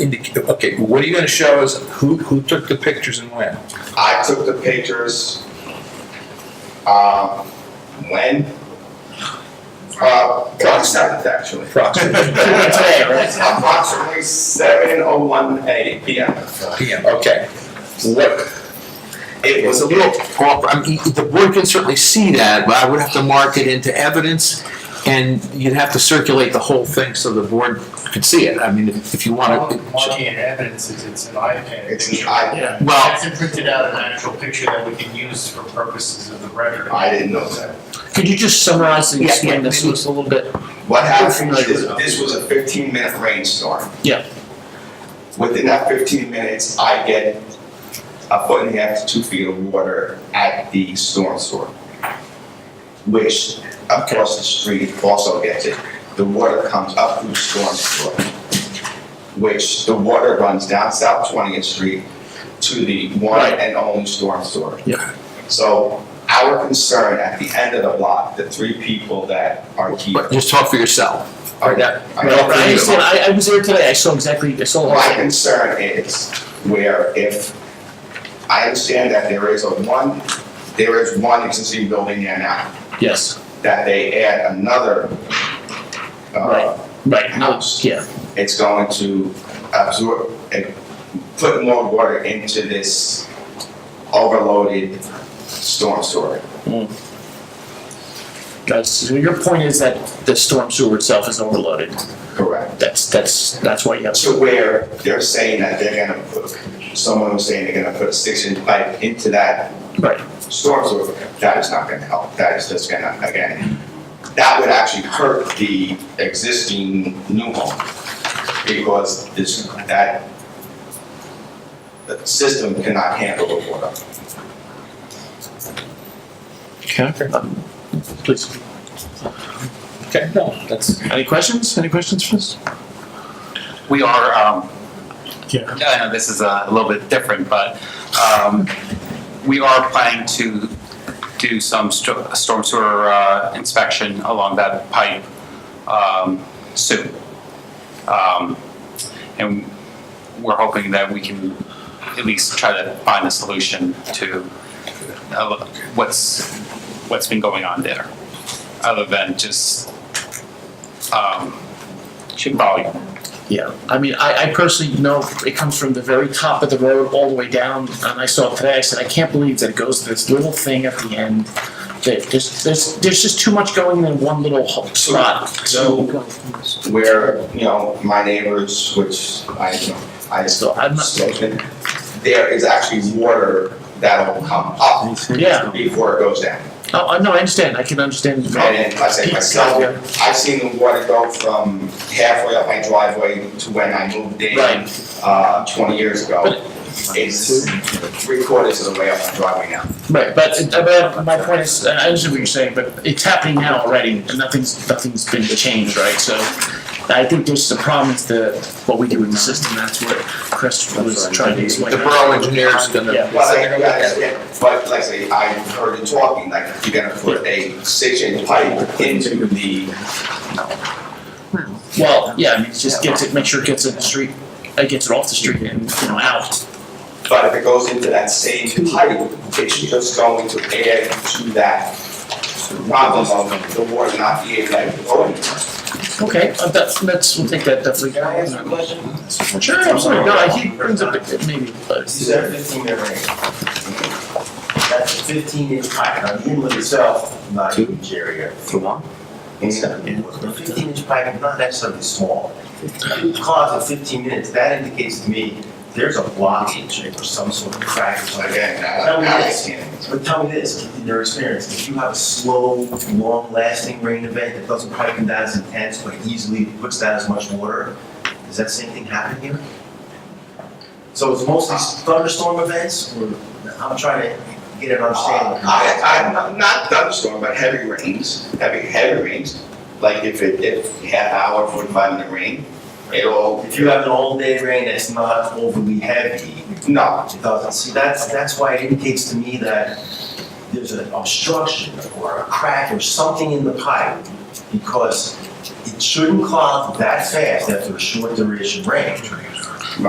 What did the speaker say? Indic- Okay, what are you gonna show us, who, who took the pictures and when? I took the pictures, um, when? Uh, March seventh, actually. Approximately. Today, right? Approximately seven oh one A P M. PM, okay. What, It It's was a little proper, I mean, the board can certainly see that, but I would have to mark it into evidence, and you'd have to circulate the whole thing so the board could see it, I mean, if if you want All to. marking and evidence is it's an iPad. It's picture. an iPad. Yeah. Well- It's printed out an actual picture that we can use for purposes of the record. I didn't know that. Could you just summarize and Yeah, explain yeah, this to maybe. us a little bit? What happened We're familiar is, with that. this was a fifteen minute rainstorm. Yeah. Within that fifteen minutes, I get a foot and a half to two feet of water at the storm sewer. Which across the street also gets it. The water comes up through storm sewer. Which the water runs down South Twentieth Street to the one Right. and only storm sewer. Yeah. So our concern at the end of the block, the three people that are here. But just talk for yourself. are that Right, I understand, I, I was there today, I saw exactly, I saw the whole My thing. concern is where if, I understand that there is a one, there is one existing building there now, Yes, that they add another, uh, Right. right, no, house, yeah, it's going to absorb, and put more water into this overloaded storm sewer. guys, so your point is that the storm sewer itself is overloaded, Correct. that's, that's, that's why you have. To where they're saying that they're gonna put, someone was saying they're gonna put a six-inch pipe into that Right, storms, or that is not gonna help, that is just gonna, again, that would actually hurt the existing new home, because this, that the system cannot handle the water. um, please, okay, no, that's. any questions, any questions for us? we are, um, Yeah. I know this is uh, a little bit different, but, um, we are planning to do some sto- storm sewer, uh, inspection along that pipe, um, soon. Um, and we're hoping that we can at least try to find a solution to, uh, what's, what's been going on there, other than just, um, volume. Yeah, I mean, I, I personally know it comes from the very top of the road all the way down, and I saw it today, I said, I can't believe that it goes to this little thing at the end. That there's, there's, there's just too much going in one little ho- spot, so, Where, you know, my neighbors, which I, you know, I just so I'm not, spoken, there is actually water that'll come up yeah, before it goes down. oh, I- no, I understand, I can understand. the- And I say myself, Yeah. I've seen the water go from halfway up my driveway to when I moved in uh, 20 years ago. It's three quarters of the way up my driveway now. Right, but, but my point is, and I understand what you're saying, but it's happening now already, and nothing's, nothing's been changed, right? So I think there's the problem is the, what we do in the system, that's what Chris was trying to explain. The borough engineer's gonna, Yeah. But like, yeah, yeah, but like I say, I heard you talking, like you're gonna put a six-inch pipe into the, Well, yeah, I mean, it just gets it, make sure it gets in the street, it gets it off the street and, you know, out. but if it goes into that same pipe, it's just going to add to that problem of the water not being like oh, flowing. Okay, uh, that's, that's, we'll take that definitely. Can I ask a question? Sure, I'm sorry, no, I think it brings up, it maybe, but, These are fifteen minute range. That's a fifteen inch pipe, now you with yourself, not huge area. A fifteen inch pipe is not necessarily small. If it cause of fifteen minutes, that indicates to me there's a blockage or some sort of crack or something. Again, I, I can't. But tell me this, in your experience, if you have a slow, long-lasting rain event that doesn't quite come down as intense, but easily puts down as much water, does that same thing happen here? So it's mostly thunderstorm events, or, I'm trying to get an understanding. I, I, not- not thunderstorm, but heavy rains, heavy, heavy rains. Like if it, if half hour, forty-five minute rain, it'll, If you have an all-day rain that's not overly heavy, no, it doesn't, see, that's, that's why it indicates to me that there's an obstruction or a crack or something in the pipe, because it shouldn't clog that fast after a short duration rain.